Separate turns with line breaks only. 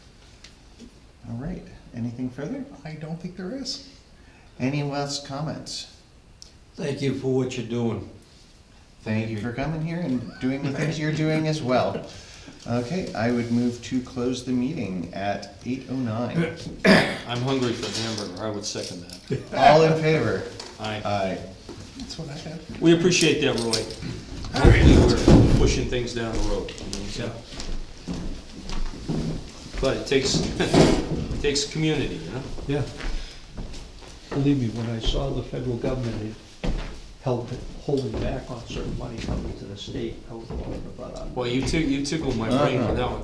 All right, anything further?
I don't think there is.
Any last comments?
Thank you for what you're doing.
Thank you for coming here and doing the things you're doing as well. Okay, I would move to close the meeting at eight oh nine.
I'm hungry for a hamburger, I would second that.
All in favor?
Aye.
Aye.
That's what I had.
We appreciate that, Roy. Hopefully, we're pushing things down the road. you know what I'm saying? But it takes, it takes community, you know?
Yeah. Believe me, when I saw the federal government had held, holding back on certain money coming to the state, I was all about it.
Well, you took, you tickled my brain for that one.